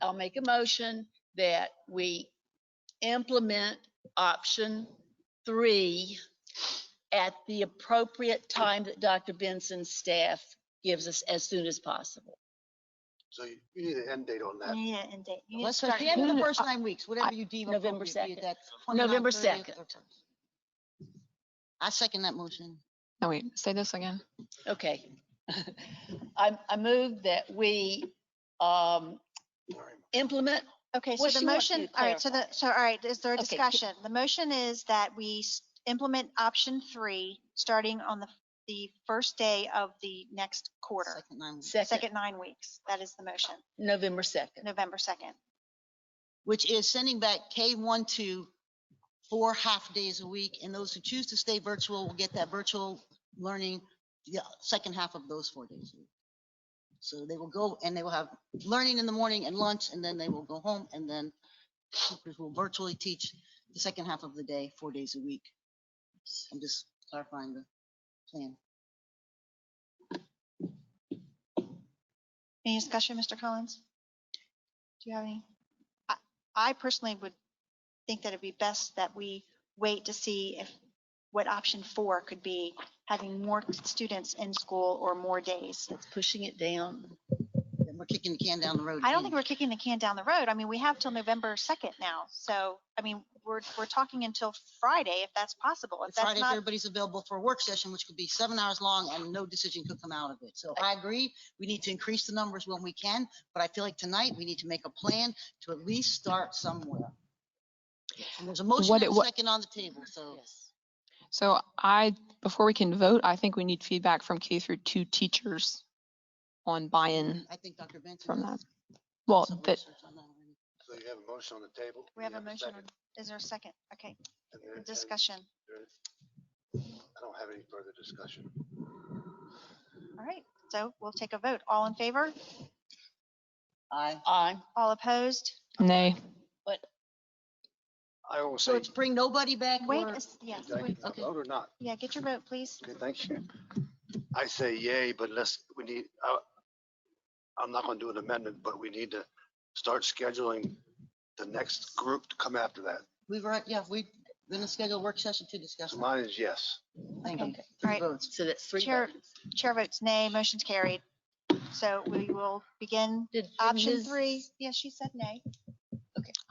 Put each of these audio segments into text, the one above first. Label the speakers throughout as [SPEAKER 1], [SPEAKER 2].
[SPEAKER 1] I'll make a motion that we implement option three at the appropriate time that Dr. Benson's staff gives us as soon as possible.
[SPEAKER 2] So you you need an end date on
[SPEAKER 1] Uh,
[SPEAKER 3] You
[SPEAKER 2] that.
[SPEAKER 3] need an end date. You need to
[SPEAKER 4] Let's
[SPEAKER 3] start-
[SPEAKER 4] put them in the first nine weeks, whatever
[SPEAKER 1] I-
[SPEAKER 4] you deem
[SPEAKER 1] November
[SPEAKER 4] appropriate. be it
[SPEAKER 1] 2nd.
[SPEAKER 4] that's 29,
[SPEAKER 1] November
[SPEAKER 4] 30th,
[SPEAKER 1] 2nd.
[SPEAKER 4] or 1st. I second that motion.
[SPEAKER 5] No, Oh, wait, say this again.
[SPEAKER 1] Okay. I, I move that we um,
[SPEAKER 2] All right.
[SPEAKER 1] implement,
[SPEAKER 3] Okay, so
[SPEAKER 1] Well,
[SPEAKER 3] the
[SPEAKER 1] she wants you
[SPEAKER 3] motion,
[SPEAKER 1] to
[SPEAKER 3] all right, so the,
[SPEAKER 1] clarify.
[SPEAKER 3] so all right, is there a
[SPEAKER 1] Okay, c-
[SPEAKER 3] discussion? The motion is that we s- implement option three, starting on the, the first day of the next quarter,
[SPEAKER 4] Second nine weeks,
[SPEAKER 1] second,
[SPEAKER 3] second nine weeks. That is the motion,
[SPEAKER 1] November 2nd.
[SPEAKER 3] November 2nd.
[SPEAKER 4] Which is sending back K-1 to four half days a week, and those who choose to stay virtual will get that virtual learning the second half of those four days. a week. So they will go and they will have learning in the morning and lunch, and then they will go home, and then teachers will virtually teach the second half of the day, four days a week. I'm just clarifying the plan.
[SPEAKER 3] Any discussion, Mr. Collins? Do you have any? I- I personally would think that it'd be best that we wait to see if, what option four could be, having more students in school or more days.
[SPEAKER 1] It's pushing it down.
[SPEAKER 4] And We're kicking the can down the road.
[SPEAKER 3] I don't
[SPEAKER 4] again.
[SPEAKER 3] think we're kicking the can down the road. I mean, we have till November 2nd now. So, I mean, we're, we're talking until Friday if that's possible. If that's
[SPEAKER 4] Friday, if
[SPEAKER 3] not,
[SPEAKER 4] everybody's available for a work session, which could be seven hours long and no decision could come out of it. So I agree, we need to increase the numbers when we can, but I feel like tonight we need to make a plan to at least start somewhere. And there's a motion
[SPEAKER 5] What
[SPEAKER 4] and
[SPEAKER 5] it
[SPEAKER 4] a
[SPEAKER 5] wa-
[SPEAKER 4] second on the table, so
[SPEAKER 5] So I, before we can vote, I think we need feedback from K through two teachers on buy-in
[SPEAKER 4] I think Dr. Benson.
[SPEAKER 5] from
[SPEAKER 4] has
[SPEAKER 5] that. Well,
[SPEAKER 4] some
[SPEAKER 5] that,
[SPEAKER 4] research on that already.
[SPEAKER 2] So you have a motion on the table.
[SPEAKER 3] we
[SPEAKER 2] You
[SPEAKER 3] have a motion.
[SPEAKER 2] second,
[SPEAKER 3] on- Is there a second? Okay,
[SPEAKER 2] and there- and
[SPEAKER 3] discussion.
[SPEAKER 2] there- I don't have any further discussion.
[SPEAKER 3] All right. So we'll take a vote. All in favor?
[SPEAKER 4] Aye.
[SPEAKER 1] I,
[SPEAKER 3] All opposed?
[SPEAKER 5] nay.
[SPEAKER 2] I will
[SPEAKER 4] So
[SPEAKER 2] say,
[SPEAKER 4] it's bring nobody back
[SPEAKER 3] Wait,
[SPEAKER 4] or
[SPEAKER 3] a s- yes,
[SPEAKER 2] did I
[SPEAKER 3] wait.
[SPEAKER 2] get my
[SPEAKER 4] okay.
[SPEAKER 2] vote or not?
[SPEAKER 3] yeah, get your vote, please.
[SPEAKER 2] Okay, thank you. I say yay, but let's, we need, I, I'm not gonna do an amendment, but we need to start scheduling the next group to come after that.
[SPEAKER 4] we were, yeah, we're gonna schedule a work session to discuss.
[SPEAKER 2] So
[SPEAKER 4] that.
[SPEAKER 2] mine is yes.
[SPEAKER 4] Thank you.
[SPEAKER 1] Okay.
[SPEAKER 4] Three
[SPEAKER 3] All right.
[SPEAKER 4] votes.
[SPEAKER 1] so that's three.
[SPEAKER 3] Chair-
[SPEAKER 1] votes.
[SPEAKER 3] Chair votes nay, motion's carried. So we will begin
[SPEAKER 1] Did- did
[SPEAKER 3] option
[SPEAKER 1] Ms.
[SPEAKER 3] three. Yeah, she said nay.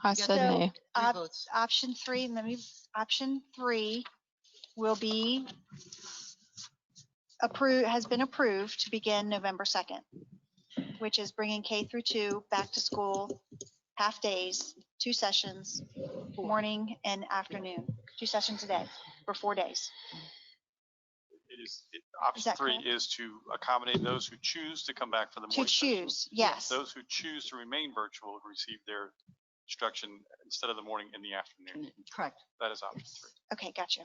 [SPEAKER 5] I
[SPEAKER 4] got
[SPEAKER 5] said
[SPEAKER 3] that.
[SPEAKER 5] nay.
[SPEAKER 4] Three
[SPEAKER 3] Uh,
[SPEAKER 4] votes.
[SPEAKER 3] option three, and then we, option three will be approved, has been approved to begin November 2nd, which is bringing K through two back to school, half days, two sessions, morning and afternoon, two sessions a day for four days.
[SPEAKER 6] It is, it- option
[SPEAKER 3] that
[SPEAKER 6] three
[SPEAKER 3] correct?
[SPEAKER 6] is to accommodate those who choose to come back for the
[SPEAKER 3] To
[SPEAKER 6] morning session.
[SPEAKER 3] choose, yes,
[SPEAKER 6] Those who choose to remain virtual receive their instruction instead of the morning in the afternoon.
[SPEAKER 4] Correct.
[SPEAKER 6] That is option three.
[SPEAKER 3] okay, gotcha.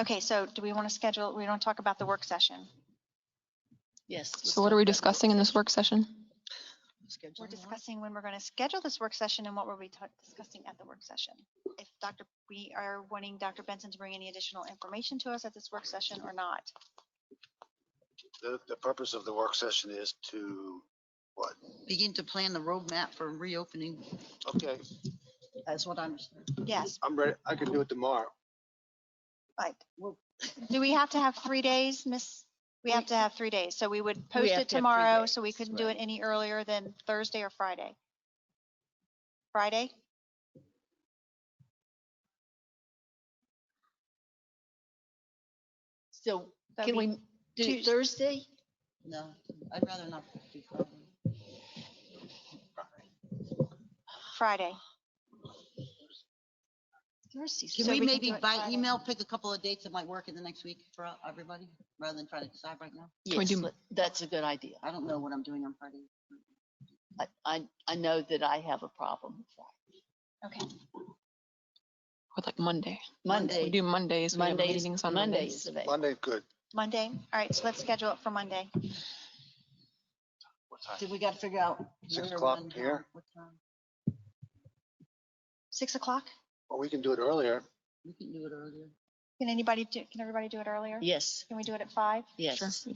[SPEAKER 3] Okay, so do we want to schedule, we don't talk about the work session?
[SPEAKER 1] Yes. let's
[SPEAKER 5] So what are
[SPEAKER 1] talk
[SPEAKER 5] we
[SPEAKER 1] about the
[SPEAKER 5] discussing in this work session?
[SPEAKER 4] Schedule
[SPEAKER 3] We're
[SPEAKER 4] one.
[SPEAKER 3] discussing when we're going to schedule this work session and what we'll be ta- discussing at the work session. If Dr., we are wanting Dr. Benson to bring any additional information to us at this work session or not.
[SPEAKER 2] The, the purpose of the work session is to, what?
[SPEAKER 4] Begin to plan the roadmap for reopening.
[SPEAKER 2] Okay,
[SPEAKER 4] That's what I understand.
[SPEAKER 3] Yes,
[SPEAKER 2] I'm ready. I can do it tomorrow.
[SPEAKER 3] but
[SPEAKER 4] Well-
[SPEAKER 3] do we have to have three days, Miss? We have to have three days, so we would
[SPEAKER 1] have
[SPEAKER 3] post it
[SPEAKER 1] to have three
[SPEAKER 3] tomorrow, so we
[SPEAKER 1] days,
[SPEAKER 3] couldn't do it
[SPEAKER 1] right.
[SPEAKER 3] any earlier than Thursday or Friday. Friday?
[SPEAKER 1] So
[SPEAKER 3] That'd
[SPEAKER 1] can
[SPEAKER 3] be
[SPEAKER 1] we do
[SPEAKER 3] Tues-
[SPEAKER 1] Thursday?
[SPEAKER 4] No, I'd rather not. do
[SPEAKER 3] Friday.
[SPEAKER 4] Friday.
[SPEAKER 1] Thursday's
[SPEAKER 4] Can
[SPEAKER 3] So
[SPEAKER 4] we
[SPEAKER 3] we can
[SPEAKER 4] maybe
[SPEAKER 3] do it
[SPEAKER 4] by
[SPEAKER 3] Friday.
[SPEAKER 4] email pick a couple of dates that might work in the next week for everybody, rather than try to decide right now?
[SPEAKER 5] Can we
[SPEAKER 1] Yes,
[SPEAKER 5] do-
[SPEAKER 1] let- that's a good idea.
[SPEAKER 4] I don't know what I'm doing on Friday.
[SPEAKER 1] I, I, I know that I have a problem with that.
[SPEAKER 3] Okay,
[SPEAKER 5] Or like Monday?
[SPEAKER 1] Monday,
[SPEAKER 5] We do Mondays. We have
[SPEAKER 1] Mondays,
[SPEAKER 5] meetings on
[SPEAKER 1] Mondays.
[SPEAKER 5] Mondays.
[SPEAKER 1] is available.
[SPEAKER 2] Monday, good.
[SPEAKER 3] Monday. All right, so let's schedule it for Monday.
[SPEAKER 6] What time?
[SPEAKER 4] So we got to figure out.
[SPEAKER 2] Six
[SPEAKER 4] where,
[SPEAKER 2] o'clock
[SPEAKER 4] when, how,
[SPEAKER 2] here.
[SPEAKER 4] what time.
[SPEAKER 3] Six o'clock?
[SPEAKER 2] Well, we can do it earlier.
[SPEAKER 4] We can do it earlier.
[SPEAKER 3] Can anybody do, can everybody do it earlier?
[SPEAKER 1] Yes,
[SPEAKER 3] Can we do it at five?
[SPEAKER 1] yes.
[SPEAKER 5] Sure.